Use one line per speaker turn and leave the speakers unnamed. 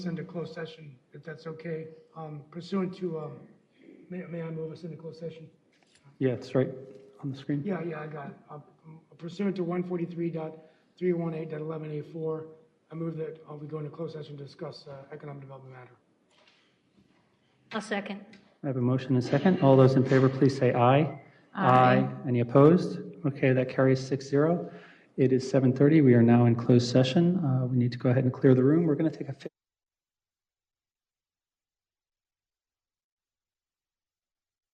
into closed session, if that's okay, Um, pursuant to, um, may may I move us into closed session?
Yeah, it's right on the screen.
Yeah, yeah, I got it. Uh, Pursuant to 143.318.11A4, I move that uh, we go into closed session to discuss uh, economic development matter.
I'll second.
I have a motion and a second. All those in favor, please say aye. Aye. Any opposed? Okay, that carries 6-0. It is 7:30. We are now in closed session. Uh, We need to go ahead and clear the room. We're going to take a 15